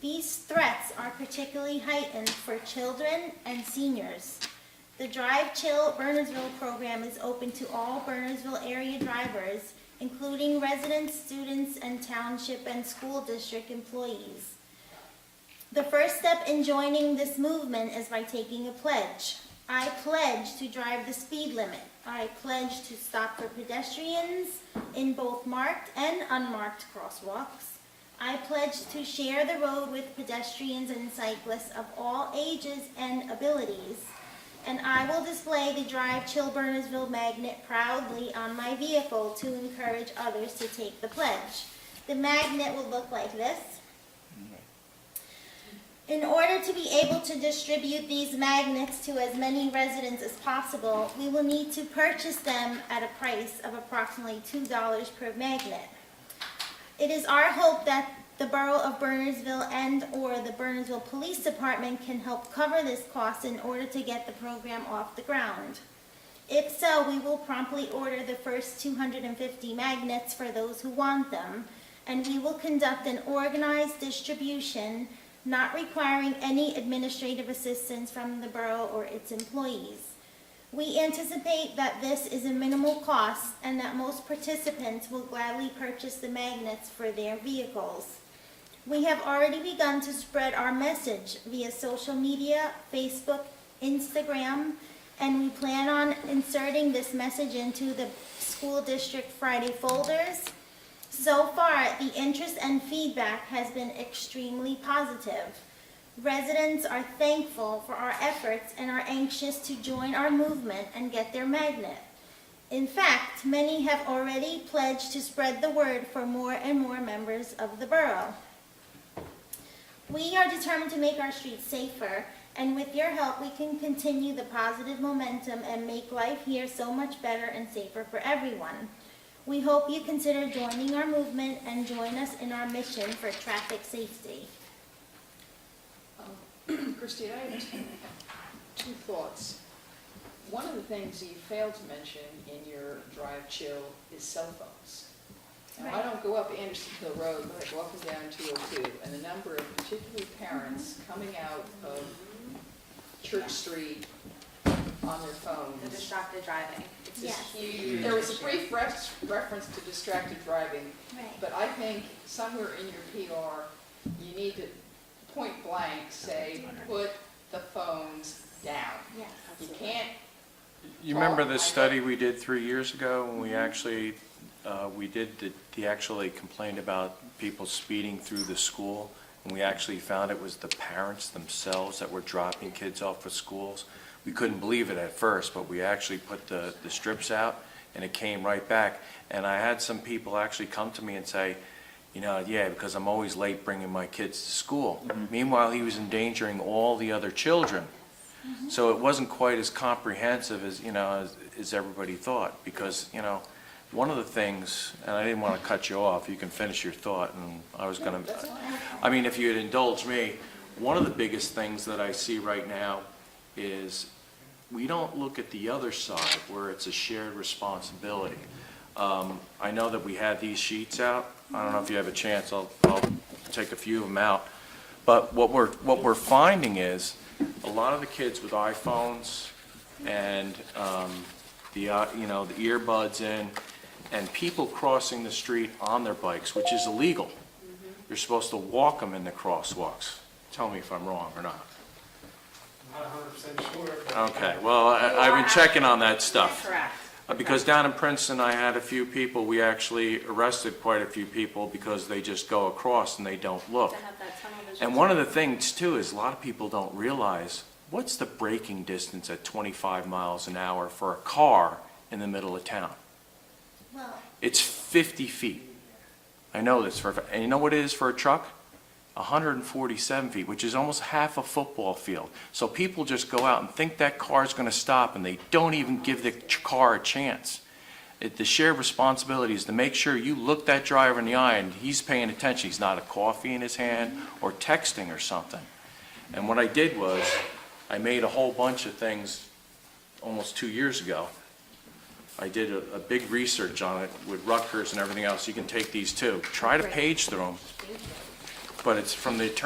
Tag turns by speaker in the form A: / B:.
A: These threats are particularly heightened for children and seniors. The Drive Chill Burnersville program is open to all Burnersville area drivers, including residents, students, and township and school district employees. The first step in joining this movement is by taking a pledge. I pledge to drive the speed limit. I pledge to stop for pedestrians in both marked and unmarked crosswalks. I pledge to share the road with pedestrians and cyclists of all ages and abilities. And I will display the Drive Chill Burnersville magnet proudly on my vehicle to encourage others to take the pledge. The magnet will look like this. In order to be able to distribute these magnets to as many residents as possible, we will need to purchase them at a price of approximately $2 per magnet. It is our hope that the Borough of Burnersville and/or the Burnersville Police Department can help cover this cost in order to get the program off the ground. If so, we will promptly order the first 250 magnets for those who want them, and we will conduct an organized distribution, not requiring any administrative assistance from the borough or its employees. We anticipate that this is a minimal cost and that most participants will gladly purchase the magnets for their vehicles. We have already begun to spread our message via social media, Facebook, Instagram, and we plan on inserting this message into the school district Friday folders. So far, the interest and feedback has been extremely positive. Residents are thankful for our efforts and are anxious to join our movement and get their magnet. In fact, many have already pledged to spread the word for more and more members of the borough. We are determined to make our streets safer, and with your help, we can continue the positive momentum and make life here so much better and safer for everyone. We hope you consider joining our movement and join us in our mission for traffic safety.
B: Um, Christine, I have two- two thoughts. One of the things that you failed to mention in your drive chill is cell phones. Now, I
A: Right.
B: don't go up Anderson Hill Road, but I go up and down 202, and the number of particularly parents
A: Mm-hmm.
B: coming out of Church Street on their
C: The
B: phones.
C: distracted driving.
B: It's this
A: Yes.
B: huge, there was a brief ref- reference to distracted driving,
A: Right.
B: But I think somewhere in your PR, you need to point blank say, put the phones down.
A: Yes.
B: You can't,
D: You remember
B: Well, I-
D: this study we did three years ago when we actually, uh, we did, the- the actually complained about people speeding through the school? And we actually found it was the parents themselves that were dropping kids off at schools. We couldn't believe it at first, but we actually put the, the strips out and it came right back. And I had some people actually come to me and say, you know, yeah, because I'm always late bringing my kids to school. Meanwhile, he was endangering all the other children. So it wasn't quite as comprehensive as, you know, as, as everybody thought, because, you know, one of the things, and I didn't want to cut you off, you can finish your thought, and I was gonna.
B: that's fine.
D: I mean, if you'd indulge me, one of the biggest things that I see right now is we don't look at the other side where it's a shared responsibility. Um, I know that we had these sheets out. I don't know if you have a chance, I'll, I'll take a few of them out. But what we're, what we're finding is a lot of the kids with iPhones and, um, the, uh, you know, the earbuds in and people crossing the street on their bikes, which is illegal. You're supposed to walk them in the crosswalks. Tell me if I'm wrong or not.
E: Not hundred percent sure, but
D: Okay, well, I- I've been checking on that stuff.
C: Correct.
D: Uh, Because down in Princeton, I had a few people, we actually arrested quite a few people because they just go across and they don't look.
C: To have that tunnel vision.
D: And one of the things too is a lot of people don't realize, what's the braking distance at 25 miles an hour for a car in the middle of town?
A: Well,
D: It's 50 feet. I know this for, a fa- and you know what it is for a truck? 147 feet, which is almost half a football field. So people just go out and think that car's going to stop, and they don't even give the ch- car a chance. It- The shared responsibility is to make sure you look that driver in the eye, and he's paying attention. He's not a coffee in his hand or texting or something. And what I did was, I made a whole bunch of things almost two years ago. I did a, a big research on it with Rutgers and everything else. You can take these too. Try to page through them. But it's from the attorney